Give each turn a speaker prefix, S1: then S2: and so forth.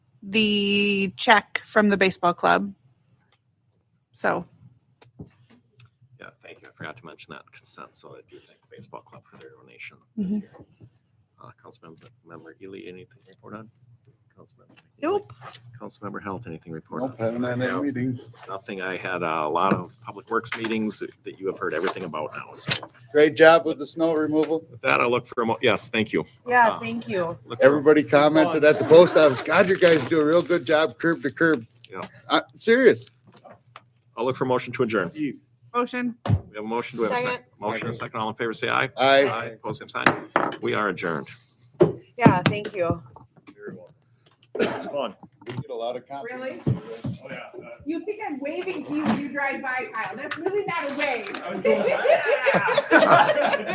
S1: the check from the baseball club. So,
S2: Yeah, thank you. I forgot to mention that consent, so I do thank the baseball club for their donation this
S1: Mhm.
S2: year. Uh, Councilmember member Ely, anything to report on? Councilmember Ely?
S1: Nope.
S2: Councilmember Health, anything to report
S3: Nope,
S2: on?
S3: haven't had any
S2: Yeah.
S3: meetings.
S2: Nothing. I had a lot of public works meetings that you have heard everything about now. So
S3: Great job with the snow removal.
S2: with that, I look for a mo- yes, thank you.
S4: Yeah,
S2: Uh,
S4: thank you.
S2: Look for-
S3: Everybody commented at the post office, God, you guys do a real good job curb to curb.
S2: Yeah.
S3: I'm serious.
S2: I'll look for a motion to adjourn.
S1: motion.
S2: We have a motion. Do we have a second?
S4: Second.
S2: Motion, and a second. All in favor, say aye.
S3: I,
S2: Aye. Post same sign. We are adjourned.
S4: Yeah, thank you.
S2: Very well. Fun.
S3: we get a lot of compliments.
S2: Oh, yeah.
S5: You think I'm waving to you when you drive by, Kyle? That's really not a wave.